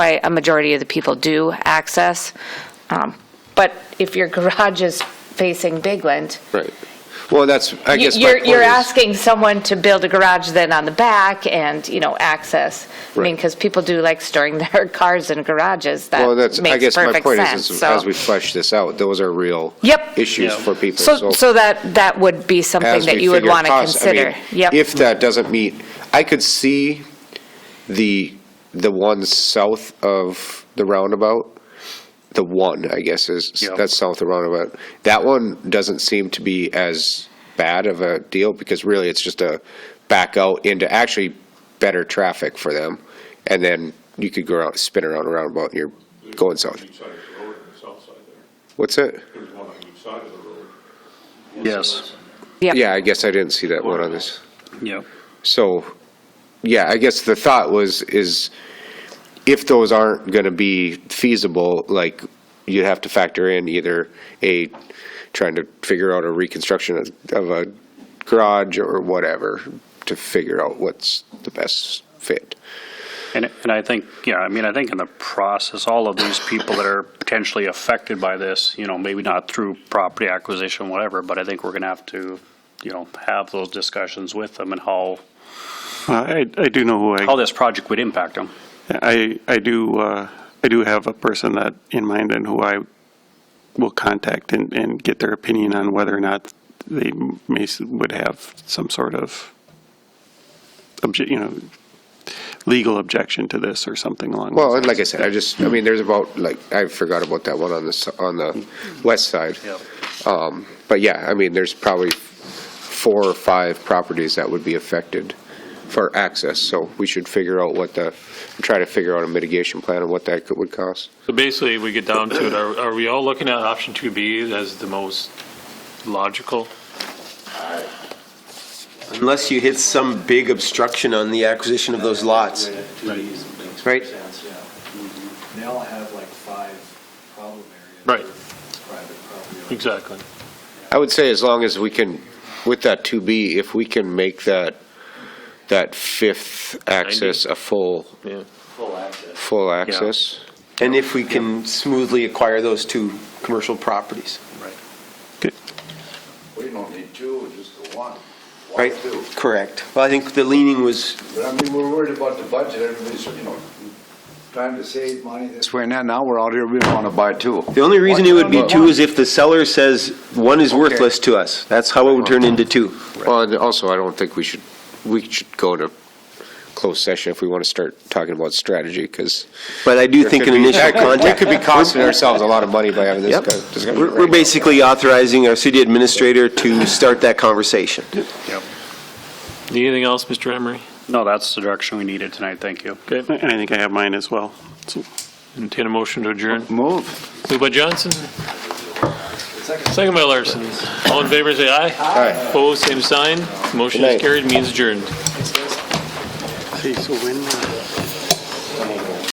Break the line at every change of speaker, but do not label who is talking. why a majority of the people do access. Um, But if your garage is facing Bigland,
Right. Well, that's, I guess my
you're,
point
you're
is-
asking someone to build a garage then on the back and, you know, access. I mean,
Right.
because people do like storing their cars in garages,
Well,
that
that's, I
makes
guess my
perfect
point is,
sense,
is
so.
as we flesh this out, those are real
Yep.
issues
Yeah.
for people.
So, so that, that would be something
as
that
we
you would
figure
want to
costs, I mean,
consider. Yep.
If that doesn't meet, I could see the, the one south of the roundabout, the one, I guess, is,
Yeah.
that's south of the roundabout. That one doesn't seem to be as bad of a deal because really it's just a back out into actually better traffic for them. And then you could go around, spin around a roundabout and you're going south.
Each side of the road and the south side there.
What's it?
There's one on each side of the road.
Yes,
Yep.
Yeah, I guess I didn't see that one on this.
yeah.
So, yeah, I guess the thought was, is if those aren't going to be feasible, like, you have to factor in either a, trying to figure out a reconstruction of- of a garage or whatever to figure out what's the best fit.
And, and I think, yeah, I mean, I think in the process, all of these people that are potentially affected by this, you know, maybe not through property acquisition, whatever, but I think we're going to have to, you know, have those discussions with them and how,
Uh, I, I do know who
how
I,
this project would impact them.
I, I do, uh, I do have a person that in mind and who I will contact and, and get their opinion on whether or not they may, s- would have some sort of obje, you know, legal objection to this or something along. those
Well, and like I said, I just, I mean, there's about, like, I forgot about that one on the, s- on the west side. Um, But yeah, I mean, there's probably four or five properties that would be affected for access, so we should figure out what the, try to figure out a mitigation plan and what that could- would cost.
So basically, we get down to it, are, are we all looking at option 2B as the most logical?
Unless you hit some big obstruction on the acquisition of those lots. Right.
They all have like five problem areas.
Right.
with Private property. owners.
Exactly.
I would say as long as we can, with that 2B, if we can make that, that fifth access a full,
Full access.
full access.
And if we can smoothly acquire those two commercial properties,
We don't need two, just the one.
right? Correct. Well, I think the leaning was,
But I mean, we're worried about the budget, everybody's, you know, trying to save money this way and that, now we're out here, we want to buy two.
the only reason it would be
One.
two is if the seller says one is worthless to us. That's how it would turn into two.
Well, and also, I don't think we should, we should go to closed session if we want to start talking about strategy, because.
But I do think an initial contact.
We could be costing ourselves a lot of money by having this
Yep.
kind of discussion.
We're
right
we're
now.
basically authorizing our city administrator to start that conversation.
Anything else, Mr. Emery?
No, that's the direction we needed tonight, thank you.
lines. And I think I have mine as well. So-
Entertain a motion to adjourn.
Move.
Moved by Johnson. Second by Larson. All in favor, say aye. Aye. Opposed, same sign. Motion
Good
is
night.
carried, means adjourned.
See, so when, uh,